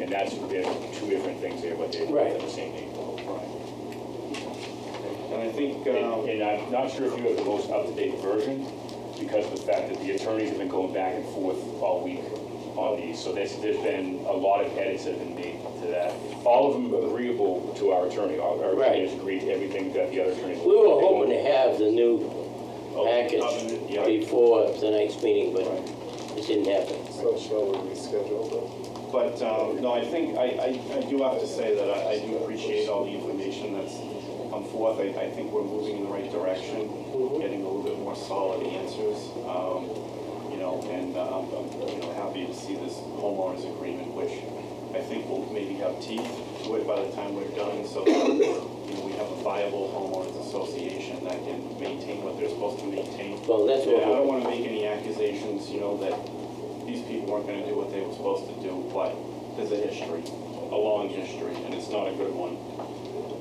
And that's, there are two different things there, but they're Right. both the same name. And I think, And um, and I'm not sure if you have the most up-to-date version, because of the fact that the attorneys have been going back and forth all week on these, so there's, there's been a lot of edits that have been made to that. All of them agreeable to our attorney, our our attorney has agreed to everything that the other attorney. We were hoping to have the new package Oh, yeah. before the next meeting, but it didn't happen. So shall we reschedule but, um, no, I think, I, I- I do have to say that I, I do appreciate all the information that's come forth. I, I think we're moving in the right direction, getting a little bit more solid answers, um, you know, and uh, I'm, I'm, you know, happy to see this homeowners agreement, which I think will maybe have teeth to it by the time we're done, so that, you know, we have a viable homeowners association that can maintain what they're supposed to maintain. Well, that's Yeah, I don't what, wanna make any accusations, you know, that these people weren't gonna do what they were supposed to do, but there's a history, a long history, and it's not a good one,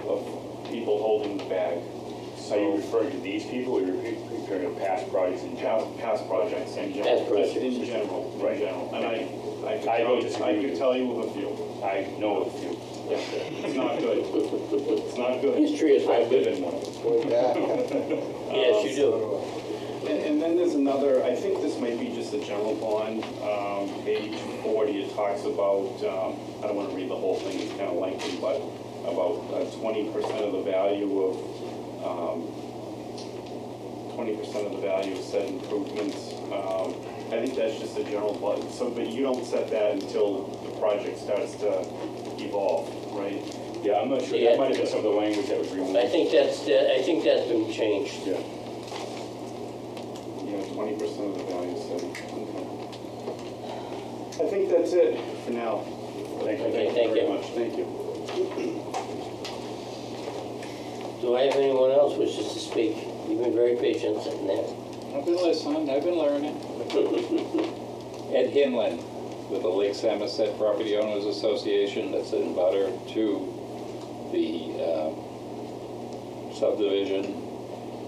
of people holding the bag. Are you So, referring to these people, or you're referring to past projects in general? past, past projects in general. Past projects. In general, in Right. general, and I, I could I tell, don't you- disagree I with could you. tell you of a few, I know a few. it's not good, it's not good. history is I like, live in one of them. though? Yeah. yes, you do. And, and then there's another, I think this might be just a general bond, um, page forty, it talks about, um, I don't wanna read the whole thing, it's kinda lengthy, but about uh, twenty percent of the value of, um, twenty percent of the value of said improvements. Um, I think that's just a general bond, so, but you don't set that until the project starts to evolve, right? Yeah, I'm not sure, that might have been some of the language that was removed. I think that's, that- I think that's been changed. Yeah. Yeah, twenty percent of the value, so. I think that's it for now. Thank you. Okay, thank very you. much. Thank you. Do I have anyone else wishes to speak? You've been very patient sitting there. I've been listening, I've been learning. Ed Hinlin with the Lake Samoset Property Owners Association that's in butter to the uh, um, subdivision.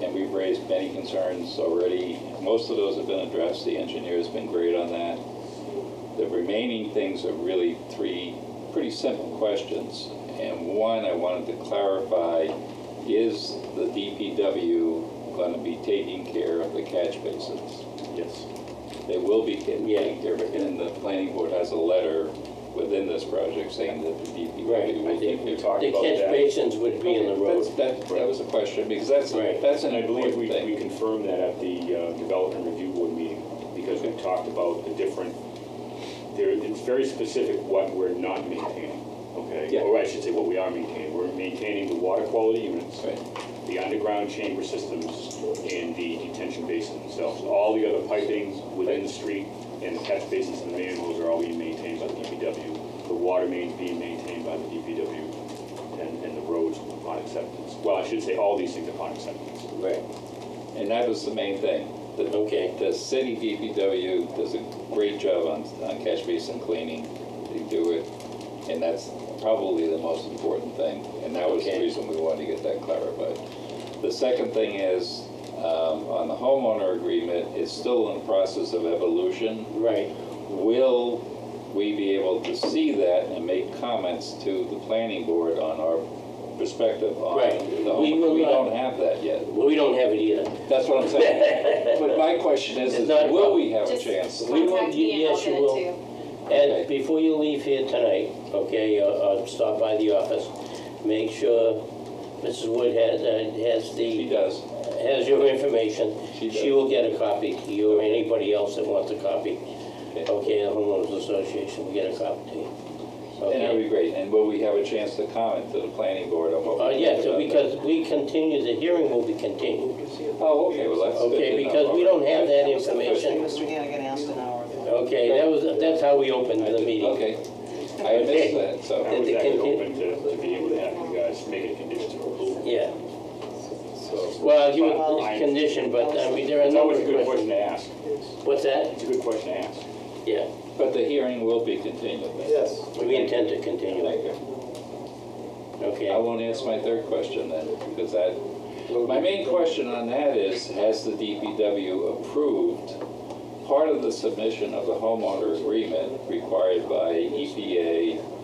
And we've raised many concerns already. Most of those have been addressed. The engineer's been great on that. The remaining things are really three pretty simple questions. And one I wanted to clarify, is the DPW going to be taking care of the catch basins? Yes. They will be taking Yeah. care of it, and the planning board has a letter within this project saying that the DPW Right, I think will take we care talked of it. The about catch that. basins would be in the That's- road. That, that was a question, because that's, Right. that's an And I believe we, important we thing. confirmed that at the uh, Development Review Board meeting, because we talked about the different, there, it's very specific what we're not maintaining, okay? Yeah. Or I should say what we are maintaining. We're maintaining the water quality units, Right. the underground chamber systems, and the detention basin themselves. All the other piping within the street and the catch basins and the manholes are all being maintained by the DPW. The water main's being maintained by the DPW, and, and the roads upon acceptance. Well, I should say all these things upon acceptance. Right, And that was the main thing. The- Okay. The city DPW does a great job on, on catch basin cleaning. They do it, and that's probably the most important thing. And that was the Okay. reason we wanted to get that clarified. The second thing is, um, on the homeowner agreement, it's still in the process of evolution. right. Will we be able to see that and make comments to the planning board on our perspective on Right. the We home? will We not- don't have that yet. Well, we don't have it either. That's what I'm saying. But my question is, It's is not- will we have a Just chance? We will- Contact me and I'll yes, you get it will. to you. And before you leave here tonight, okay, uh, uh, stop by the office, make sure Mrs. Wood has, uh, has She the, does. has your information. She does. will get a copy to you or anybody else that wants a copy. Okay. Okay, the homeowners association will get a copy to you. And that'd Okay? be great. And will we have a chance to comment to the planning board on Uh, what we yeah, think so about that? because we continue, the hearing will be continued, Oh, okay, well, that's good okay, to know. because we don't have that That was the first thing information. Mr. Hannigan asked an hour ago. Okay, that was, that's how we opened the meeting. Okay. I missed that, so. I was Did they actually continue? open to, to be able to have you guys make it a condition of approval. Yeah, So well, you, Fine. it's conditioned, but I mean, there are a It's number always of a good questions. question to ask. What's that? It's a good question to ask. Yeah. But the hearing will be continued. then. Yes. We intend to continue it, Thank you. I okay? won't answer my third question then, because that, my main question on that is, has the DPW E approved part of the submission of the homeowner agreement required by EPA